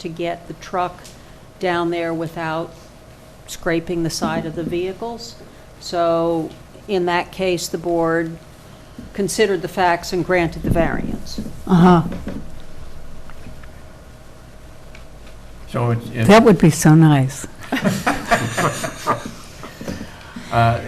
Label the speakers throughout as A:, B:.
A: to get the truck down there without scraping the side of the vehicles. So in that case, the board considered the facts and granted the variance.
B: Uh-huh.
C: So it's- it's,
B: That would be so nice.
C: uh,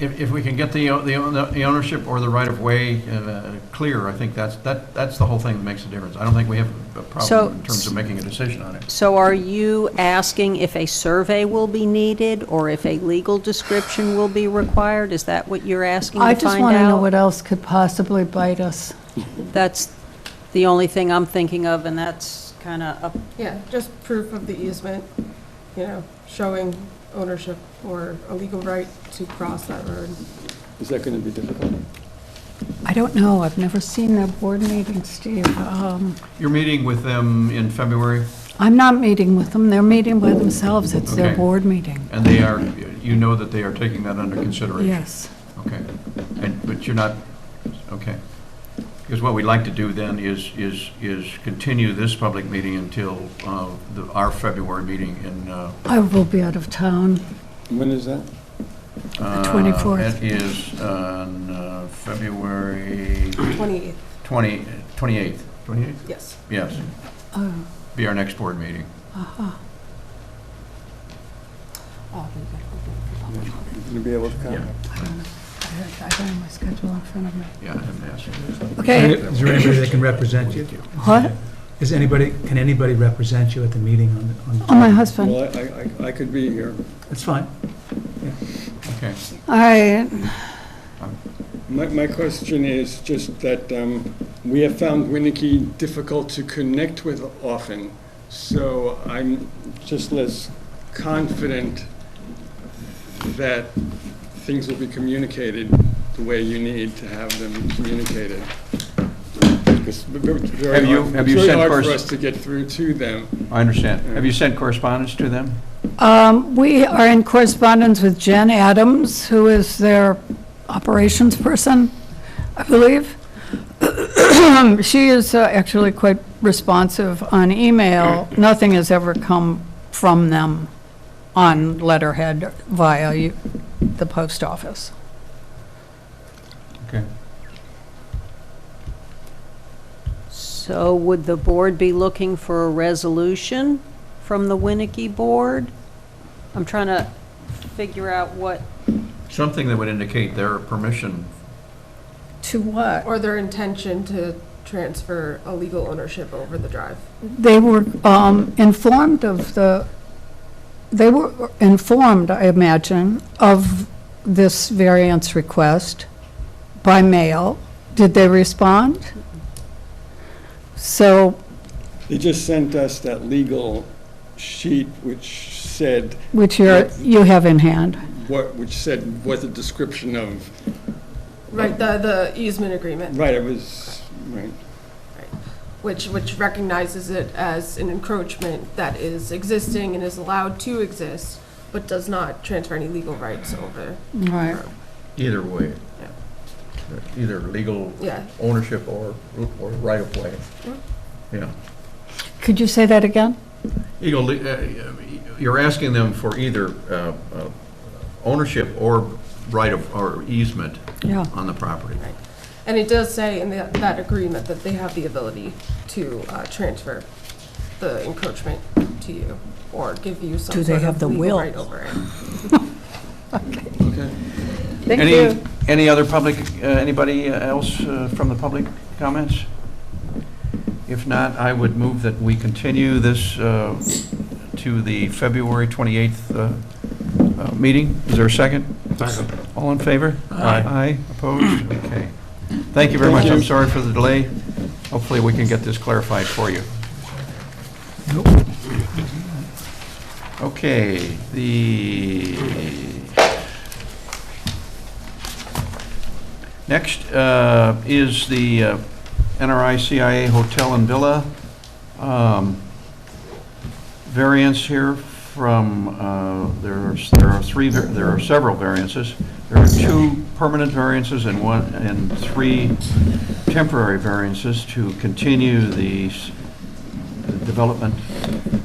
C: if, if we can get the, o- the o- the ownership or the right-of-way uh, clear, I think that's, that, that's the whole thing that makes a difference. I don't think we have a
A: So-
C: problem in terms of making a decision on it.
A: So are you asking if a survey will be needed or if a legal description will be required? Is that what you're asking to
B: I
A: find out?
B: just want to know what else could possibly bite us.
A: That's the only thing I'm thinking of, and that's kind of up
D: Yeah, just proof of the easement, you know, showing ownership or a legal right to cross that road.
E: Is that going to be difficult?
B: I don't know, I've never seen their board meeting, Steve. Um,
C: You're meeting with them in February,
B: I'm not meeting with them, they're meeting by themselves, it's their
C: Okay.
B: board meeting.
C: and they are, you know that they are taking that under consideration?
B: Yes.
C: Okay, and, but you're not, okay. Because what we'd like to do then is, is, is continue this public meeting until uh, the- our February meeting in. uh,
B: I will be out of town.
E: When is that?
C: uh,
B: 24th.
C: That is on uh, February
D: 28th,
C: 20, 28th. 28th?
D: yes.
C: Yes,
B: Oh,
C: be our next board meeting.
B: uh-huh.
E: Going to be able to come?
B: I don't know. I I don't have my schedule in front of me.
C: Yeah, I haven't asked you.
B: Okay,
F: Is there anybody that can represent you?
B: what?
F: Is anybody, can anybody represent you at the meeting on the- on? the-
B: Oh, my husband.
E: Well, I- I, I could be here.
F: That's fine.
C: Okay,
B: All right,
E: My, my question is just that um, we have found Winnicke difficult to connect with often, so I'm just less confident that things will be communicated the way you need to have them communicated. Have
C: Have you- have you
E: It's very
C: sent
E: hard for
C: corres-
E: us to get through to them.
C: I understand. Have you sent correspondence to them?
B: Um, We are in correspondence with Jen Adams, who is their operations person, I believe. She is uh, actually quite responsive on email. Nothing has ever come from them on letterhead via you- the post office.
C: Okay.
A: So would the board be looking for a resolution from the Winnicke board? I'm trying to figure out what,
C: Something that would indicate their permission.
B: To what?
D: Or their intention to transfer a legal ownership over the drive.
B: They were um, informed of the, they were informed, I imagine, of this variance request by mail. Did they respond? So
E: They just sent us that legal sheet which said
B: which you're, you have in hand.
E: what, which said what the description of,
D: Right, the, the easement agreement,
E: right, it was, right.
D: which, which recognizes it as an encroachment that is existing and is allowed to exist, but does not transfer any legal rights over.
B: Right.
C: Either way. Either legal
D: Yeah,
C: ownership or, or right of way. Yeah.
B: Could you say that again?
C: Eagle, uh, you're asking them for either uh, uh, ownership or right of, or easement
B: Yeah.
C: on the property.
D: Right. and it does say in the- that agreement that they have the ability to uh, transfer the encroachment to you, or give you some
A: Do they
D: sort
A: have the
D: of legal
A: will?
D: right over it.
E: Okay.
B: Thank
C: Any-
B: you.
C: Any other public, uh, anybody else uh, from the public comments? If not, I would move that we continue this uh, to the February 28th uh, uh, meeting. Is there a second? Second. All in favor?
F: Aye.
C: Aye, opposed? Okay. Thank you very much. I'm sorry for the delay. Hopefully, we can get this clarified for you. Okay, the next uh, is the uh, NRI CIA Hotel and Villa um, variance here from, uh, there's, there are three, var- there are several variances. There are two permanent variances and one, and three temporary variances to continue the s- the development